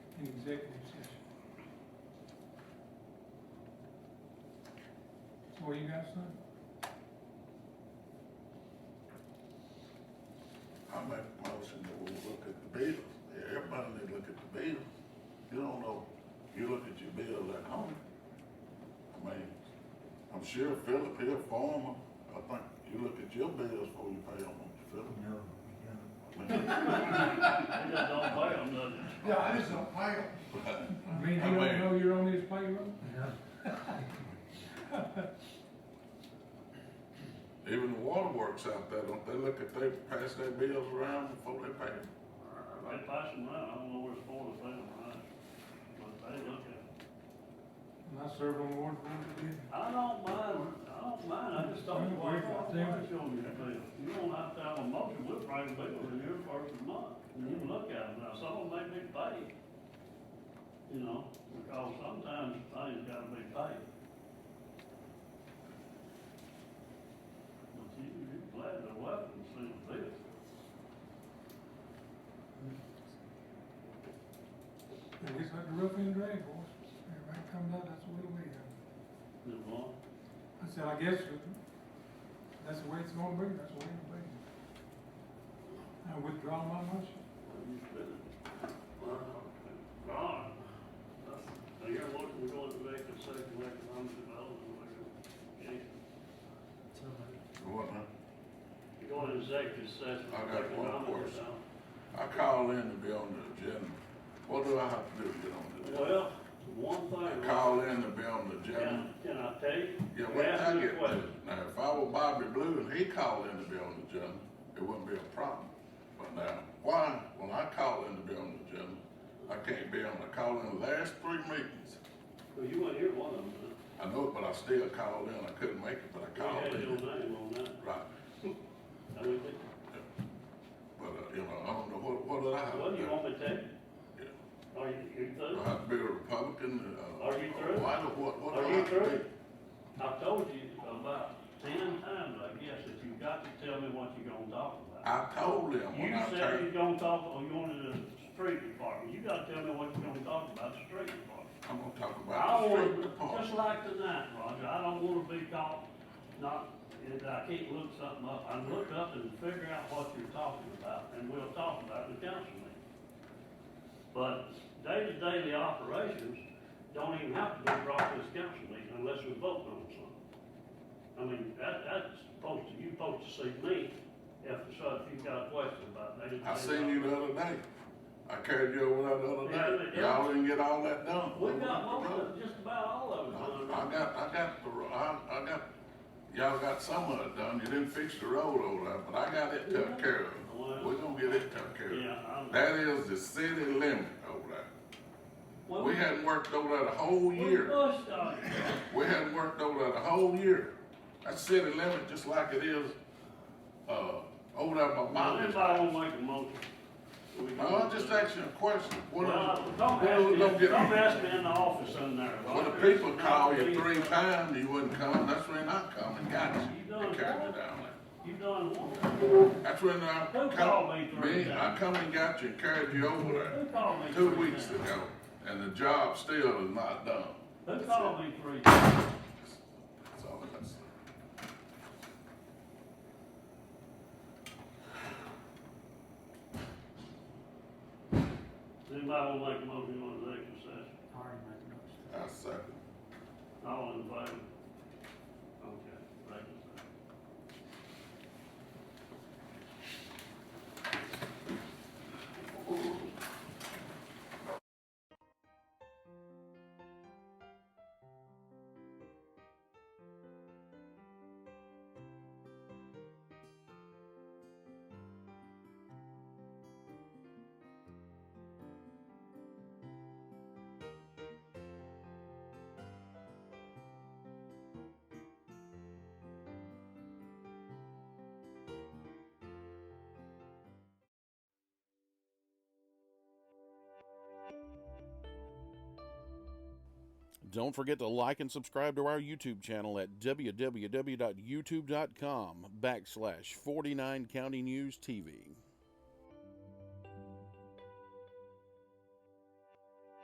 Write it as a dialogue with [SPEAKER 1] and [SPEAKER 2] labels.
[SPEAKER 1] in executive session. What you got, son?
[SPEAKER 2] I make a motion that we look at the bill. Everybody need to look at the bill. You don't know, you look at your bill at home. I mean, I'm sure Philip here, farmer, I think you look at your bills before you pay them, don't
[SPEAKER 3] No,
[SPEAKER 2] you, Philip? I mean,
[SPEAKER 4] They just don't pay them nothing.
[SPEAKER 5] Yeah, I just don't pay them.
[SPEAKER 1] I mean, you
[SPEAKER 2] I
[SPEAKER 1] don't
[SPEAKER 2] mean-
[SPEAKER 1] know you're on his payroll?
[SPEAKER 3] no,
[SPEAKER 2] Even the waterworks out there, don't they look at, they pass their bills around before they pay them?
[SPEAKER 4] They pass them out, I don't know where it's for to pay them out, but they look at it.
[SPEAKER 1] And I serve on the water board, did.
[SPEAKER 4] I don't mind, I don't mind, I just don't, why, why why show me your bill? You don't have to have a motion, we'll probably be within your first of the month, and you look at them, now some of them may be paid. You know, because sometimes things gotta be paid. But you, you're glad the weapons seem to be.
[SPEAKER 1] And it's like the rough end drag horse. Everybody comes out, that's the way we have.
[SPEAKER 4] Is one,
[SPEAKER 1] I said, I guess that's the way it's gonna be, that's the way it'll be. I withdraw my motion.
[SPEAKER 4] you said it. Ron, I hear what we're going to make a second economic development, recommendation.
[SPEAKER 2] What, huh?
[SPEAKER 4] You're going to executive session.
[SPEAKER 2] I got one
[SPEAKER 4] economic
[SPEAKER 2] question.
[SPEAKER 4] development.
[SPEAKER 2] I call in to be on the agenda. What do I have to do to get on the agenda?
[SPEAKER 4] Well, one
[SPEAKER 2] I
[SPEAKER 4] thing.
[SPEAKER 2] call in to be on the agenda.
[SPEAKER 4] Can, can I tell you?
[SPEAKER 2] Yeah,
[SPEAKER 4] You
[SPEAKER 2] what
[SPEAKER 4] asked
[SPEAKER 2] I
[SPEAKER 4] me a
[SPEAKER 2] get,
[SPEAKER 4] question.
[SPEAKER 2] now, if I were Bobby Blue and he called in to be on the agenda, it wouldn't be a problem. But now, why, when I call in to be on the agenda, I can't be on, I called in the last three meetings.
[SPEAKER 4] Well, you weren't here one of them, huh?
[SPEAKER 2] I know it, but I still called in, I couldn't make it, but I
[SPEAKER 4] We
[SPEAKER 2] called
[SPEAKER 4] had your
[SPEAKER 2] in.
[SPEAKER 4] name on that.
[SPEAKER 2] Right,
[SPEAKER 4] I mean, it-
[SPEAKER 2] but, uh, you know, I don't know, what, what did I have to
[SPEAKER 4] Well,
[SPEAKER 2] do?
[SPEAKER 4] you want me to tell you?
[SPEAKER 2] Yeah.
[SPEAKER 4] Are you, you
[SPEAKER 2] Do
[SPEAKER 4] through?
[SPEAKER 2] I have to be a Republican, uh?
[SPEAKER 4] Are you through?
[SPEAKER 2] Why, do- what, what do
[SPEAKER 4] Are
[SPEAKER 2] I
[SPEAKER 4] you
[SPEAKER 2] have to do?
[SPEAKER 4] through? I've told you about ten times, I guess, that you've got to tell me what you're gonna talk about.
[SPEAKER 2] I told them when
[SPEAKER 4] You
[SPEAKER 2] I
[SPEAKER 4] said
[SPEAKER 2] turned,
[SPEAKER 4] you're gonna talk, or you wanted the street department, you gotta tell me what you're gonna talk about, the street department.
[SPEAKER 2] I'm gonna talk
[SPEAKER 4] I
[SPEAKER 2] about the street
[SPEAKER 4] want,
[SPEAKER 2] department.
[SPEAKER 4] just like tonight, Roger, I don't wanna be caught, not, if I can't look something up, I look up and figure out what you're talking about, and we'll talk about it in the council meeting. But day-to-day operations don't even have to be brought to this council meeting unless we vote on something. I mean, that, that's supposed to, you're supposed to see me if, so if you've got a question about day-to-day.
[SPEAKER 2] I seen you the other day. I carried you over there the other day.
[SPEAKER 4] Yeah.
[SPEAKER 2] Y'all didn't get all that done.
[SPEAKER 4] We got most of, just about all of it
[SPEAKER 2] I I
[SPEAKER 4] done.
[SPEAKER 2] got, I got, the ro- I, I got, y'all got some of it done. You didn't fix the road over there, but I got it took care of. We're gonna get it took care of.
[SPEAKER 4] Yeah, I'm.
[SPEAKER 2] That is the city limit over there.
[SPEAKER 4] Well,
[SPEAKER 2] We hadn't worked over there the whole
[SPEAKER 4] We
[SPEAKER 2] year.
[SPEAKER 4] pushed on it.
[SPEAKER 2] We hadn't worked over there the whole year. That city limit, just like it is, uh, over there by Bobby's.
[SPEAKER 4] Anybody wanna make a motion? We
[SPEAKER 2] No,
[SPEAKER 4] can-
[SPEAKER 2] I'm just asking a question. What
[SPEAKER 4] Well,
[SPEAKER 2] is,
[SPEAKER 4] don't
[SPEAKER 2] Well, don't
[SPEAKER 4] ask me,
[SPEAKER 2] get-
[SPEAKER 4] don't ask me in the office in there.
[SPEAKER 2] When the people call you three times, you wouldn't come, that's when I come and got you, and carried you down
[SPEAKER 4] You done what?
[SPEAKER 2] there. That's when I
[SPEAKER 4] Who called me
[SPEAKER 2] come,
[SPEAKER 4] three
[SPEAKER 2] me, I
[SPEAKER 4] times?
[SPEAKER 2] come and got you and carried you over
[SPEAKER 4] Who
[SPEAKER 2] there
[SPEAKER 4] called me
[SPEAKER 2] two
[SPEAKER 4] three
[SPEAKER 2] weeks
[SPEAKER 4] times?
[SPEAKER 2] ago, and the job still is not done.
[SPEAKER 4] Who called me three times?
[SPEAKER 2] That's all I can say.
[SPEAKER 4] Anybody wanna make a motion on the executive session?
[SPEAKER 2] I second.
[SPEAKER 4] All in favor? Okay, thank you, sir.
[SPEAKER 6] Don't forget to like and subscribe to our YouTube channel at www.youtube.com backslash 49 County News TV.